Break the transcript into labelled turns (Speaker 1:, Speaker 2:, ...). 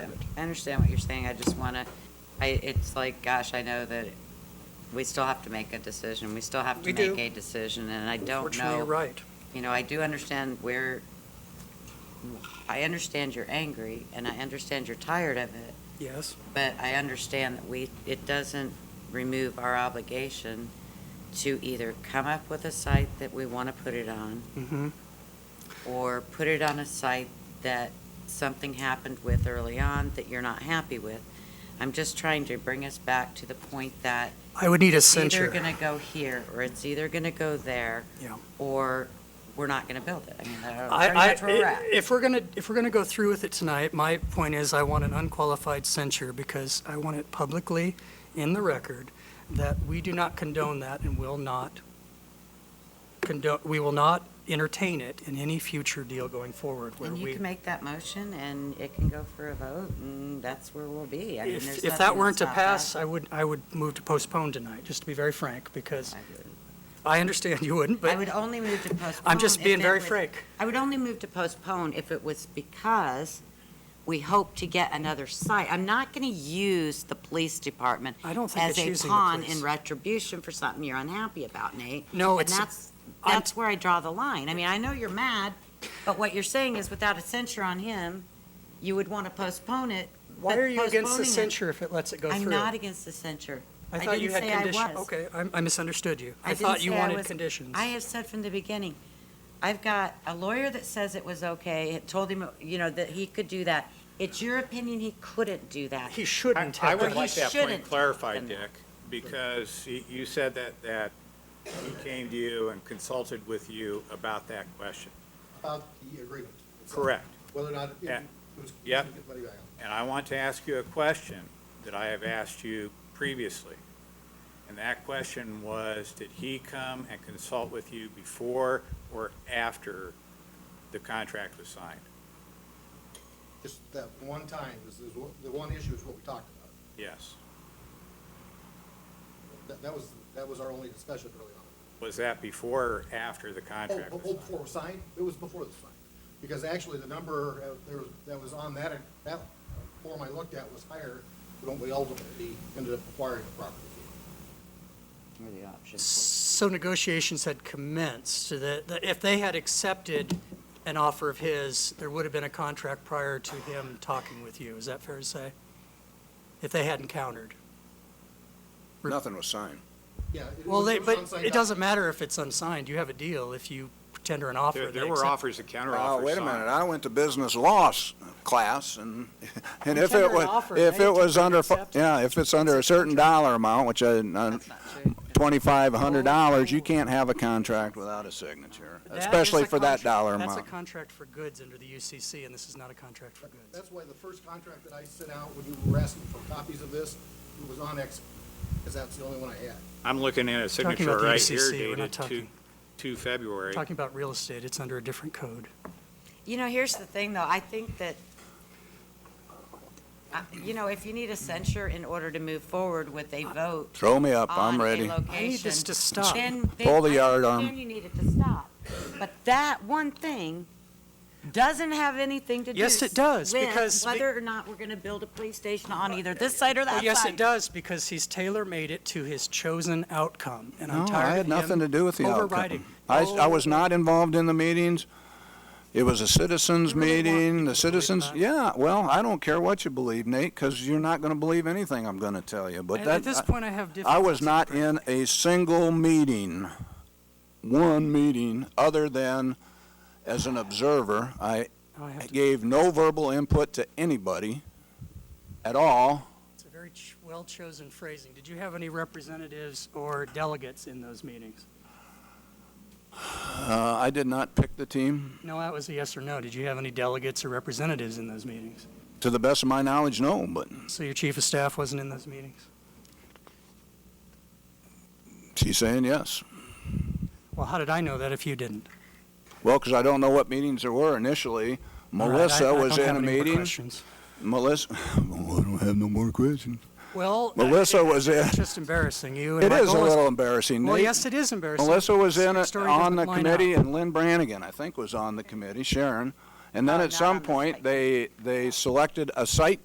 Speaker 1: I understand what you're saying, I just wanna, I, it's like, gosh, I know that we still have to make a decision, we still have to
Speaker 2: We
Speaker 1: make
Speaker 2: do.
Speaker 1: a decision, and I don't
Speaker 2: Unfortunately, you're
Speaker 1: know,
Speaker 2: right.
Speaker 1: you know, I do understand where, I understand you're angry, and I understand you're tired of it,
Speaker 2: Yes,
Speaker 1: but I understand that we, it doesn't remove our obligation to either come up with a site that we wanna put it on,
Speaker 2: mm-hmm,
Speaker 1: or put it on a site that something happened with early on that you're not happy with. I'm just trying to bring us back to the point that
Speaker 2: I would need a
Speaker 1: it's either
Speaker 2: censure.
Speaker 1: gonna go here, or it's either gonna go there,
Speaker 2: Yeah.
Speaker 1: or we're not gonna build it. I mean, that-
Speaker 2: I,
Speaker 1: that's where we're
Speaker 2: I,
Speaker 1: at.
Speaker 2: if we're gonna, if we're gonna go through with it tonight, my point is I want an unqualified censure because I want it publicly in the record that we do not condone that and will not condone, we will not entertain it in any future deal going forward where
Speaker 1: And you
Speaker 2: we.
Speaker 1: can make that motion, and it can go for a vote, and that's where we'll be. I mean, there's
Speaker 2: If,
Speaker 1: nothing
Speaker 2: if that
Speaker 1: that's
Speaker 2: weren't to
Speaker 1: not
Speaker 2: pass,
Speaker 1: passed.
Speaker 2: I would, I would move to postpone tonight, just to be very frank, because
Speaker 1: I would-
Speaker 2: I understand you wouldn't,
Speaker 1: I
Speaker 2: but
Speaker 1: would only move to postpone.
Speaker 2: I'm just
Speaker 1: if
Speaker 2: being
Speaker 1: it
Speaker 2: very
Speaker 1: was-
Speaker 2: frank.
Speaker 1: I would only move to postpone if it was because we hope to get another site. I'm not going to use the police department
Speaker 2: I don't think
Speaker 1: as
Speaker 2: it's
Speaker 1: a
Speaker 2: using the
Speaker 1: pawn
Speaker 2: police.
Speaker 1: in retribution for something you're unhappy about, Nate.
Speaker 2: No, it's-
Speaker 1: And that's,
Speaker 2: I'm-
Speaker 1: that's where I draw the line. I mean, I know you're mad, but what you're saying is without a censure on him, you would want to postpone it.
Speaker 2: Why
Speaker 1: but
Speaker 2: are you against the
Speaker 1: postponing it-
Speaker 2: censure if it lets it go through?
Speaker 1: I'm not against the censure.
Speaker 2: I
Speaker 1: I
Speaker 2: thought you had
Speaker 1: didn't say I
Speaker 2: conditions.
Speaker 1: was.
Speaker 2: Okay, I'm- I misunderstood you.
Speaker 1: I
Speaker 2: I
Speaker 1: didn't
Speaker 2: thought you
Speaker 1: say I
Speaker 2: wanted
Speaker 1: was-
Speaker 2: conditions.
Speaker 1: I have said from the beginning, I've got a lawyer that says it was okay, it told him, you know, that he could do that. It's your opinion he couldn't do that.
Speaker 2: He shouldn't
Speaker 3: I
Speaker 2: have
Speaker 3: would
Speaker 1: Or
Speaker 2: done
Speaker 1: he
Speaker 3: like that
Speaker 1: shouldn't
Speaker 3: point
Speaker 1: have
Speaker 3: clarified,
Speaker 1: done that.
Speaker 3: Dick, because y- you said that, that he came to you and consulted with you about that question.
Speaker 4: About the agreement. itself,
Speaker 3: Correct.
Speaker 4: Whether or not it
Speaker 3: Yeah.
Speaker 4: it was.
Speaker 3: Yep.
Speaker 4: it was money back on.
Speaker 3: And I want to ask you a question that I have asked you previously. And that question was, did he come and consult with you before or after the contract was signed?
Speaker 4: Just that one time, is, is what- the one issue is what we talked about.
Speaker 3: Yes.
Speaker 4: That, that was, that was our only discussion early on.
Speaker 3: Was that before or after the
Speaker 4: Oh,
Speaker 3: contract
Speaker 4: but-
Speaker 3: was
Speaker 4: Oh,
Speaker 3: signed?
Speaker 4: before it was signed, it was before the sign. Because actually, the number uh, there was, that was on that, that form I looked at was higher than what we ultimately ended up acquiring the property.
Speaker 1: Or the option.
Speaker 2: So negotiations had commenced, so that, that if they had accepted an offer of his, there would have been a contract prior to him talking with you. Is that fair to say? If they hadn't countered.
Speaker 5: Nothing was signed.
Speaker 4: Yeah. it
Speaker 2: Well,
Speaker 4: was-
Speaker 2: they,
Speaker 4: it was
Speaker 2: but
Speaker 4: unsigned
Speaker 2: it
Speaker 4: doc-
Speaker 2: doesn't matter if it's unsigned. You have a deal if you tender an offer.
Speaker 3: There,
Speaker 2: they
Speaker 3: there were
Speaker 2: accept-
Speaker 3: offers and counteroffers
Speaker 5: Oh,
Speaker 3: signed.
Speaker 5: wait a minute, I went to business law s- class, and, and
Speaker 2: You
Speaker 5: if
Speaker 2: tender
Speaker 5: it
Speaker 2: an
Speaker 5: was,
Speaker 2: offer,
Speaker 5: if
Speaker 2: now you
Speaker 5: it was
Speaker 2: tender an
Speaker 5: under, fi-
Speaker 2: acceptance.
Speaker 5: yeah, if it's under a certain dollar amount, which I,
Speaker 1: That's not true.
Speaker 5: twenty-five hundred dollars, you can't have a contract without a signature,
Speaker 2: That is
Speaker 5: especially
Speaker 2: a
Speaker 5: for
Speaker 2: contract-
Speaker 5: that dollar
Speaker 2: That's
Speaker 5: amount.
Speaker 2: a contract for goods under the UCC, and this is not a contract for goods.
Speaker 4: That's why the first contract that I sent out when you were asking for copies of this, it was on X, because that's the only one I had.
Speaker 3: I'm looking at
Speaker 2: Talking
Speaker 3: a signature
Speaker 2: about the
Speaker 3: right here
Speaker 2: UCC, we're not
Speaker 3: dated two,
Speaker 2: talking-
Speaker 3: two February.
Speaker 2: Talking about real estate, it's under a different code.
Speaker 1: You know, here's the thing, though, I think that, I- you know, if you need a censure in order to move forward with a vote
Speaker 5: Throw me up,
Speaker 1: on
Speaker 5: I'm
Speaker 1: a
Speaker 5: ready.
Speaker 2: I need this
Speaker 1: location,
Speaker 2: to stop.
Speaker 1: then, then.
Speaker 5: Pull the
Speaker 1: I
Speaker 5: yardarm.
Speaker 1: understand you need it to stop. But that one thing doesn't have anything to do.
Speaker 2: Yes, it does,
Speaker 1: with
Speaker 2: because be-
Speaker 1: Whether or not we're gonna build a police station on either this side or that
Speaker 2: Well,
Speaker 1: side.
Speaker 2: yes, it does, because he's tailor-made it to his chosen outcome, and I'm
Speaker 5: No, I
Speaker 2: tired
Speaker 5: had
Speaker 2: of
Speaker 5: nothing
Speaker 2: him
Speaker 5: to do with the outcome.
Speaker 2: overriding.
Speaker 5: I, I was not involved in the meetings. It was a citizens
Speaker 2: You really want
Speaker 5: meeting,
Speaker 2: people
Speaker 5: the
Speaker 2: to believe
Speaker 5: citizens,
Speaker 2: that?
Speaker 5: yeah, well, I don't care what you believe, Nate, because you're not gonna believe anything I'm gonna tell you, but
Speaker 2: At-
Speaker 5: that.
Speaker 2: At this
Speaker 5: I-
Speaker 2: point, I have different.
Speaker 5: I was not in a single meeting, one meeting, other than as an observer. I
Speaker 2: Oh, I have to-
Speaker 5: gave no verbal input to anybody at all.
Speaker 2: It's a very ch- well-chosen phrasing. Did you have any representatives or delegates in those meetings?
Speaker 5: Uh, I did not pick the team.
Speaker 2: No, that was a yes or no. Did you have any delegates or representatives in those meetings?
Speaker 5: To the best of my knowledge, no, but
Speaker 2: So your chief of staff wasn't in those meetings?
Speaker 5: she's saying yes.
Speaker 2: Well, how did I know that if you didn't?
Speaker 5: Well, because I don't know what meetings there were initially.
Speaker 2: All right, I- I
Speaker 5: Melissa was
Speaker 2: don't
Speaker 5: in
Speaker 2: have
Speaker 5: a
Speaker 2: any more
Speaker 5: meeting.
Speaker 2: questions.
Speaker 5: Melissa, Well, I don't have no more questions.
Speaker 2: Well. I-
Speaker 5: Melissa was in,
Speaker 2: It's just embarrassing you. and
Speaker 5: it
Speaker 2: my
Speaker 5: is a
Speaker 2: goal
Speaker 5: little embarrassing.
Speaker 2: Well,
Speaker 5: Nate.
Speaker 2: yes, it is embarrassing.
Speaker 5: Melissa was
Speaker 2: Your
Speaker 5: in, it-
Speaker 2: story
Speaker 5: on
Speaker 2: doesn't
Speaker 5: the
Speaker 2: line
Speaker 5: committee,
Speaker 2: up.
Speaker 5: and Lynn Brannigan, I think, was on the committee, Sharon. And then
Speaker 1: Oh,
Speaker 5: at
Speaker 1: not on
Speaker 5: some
Speaker 1: the
Speaker 5: point,
Speaker 1: site.
Speaker 5: they, they selected a site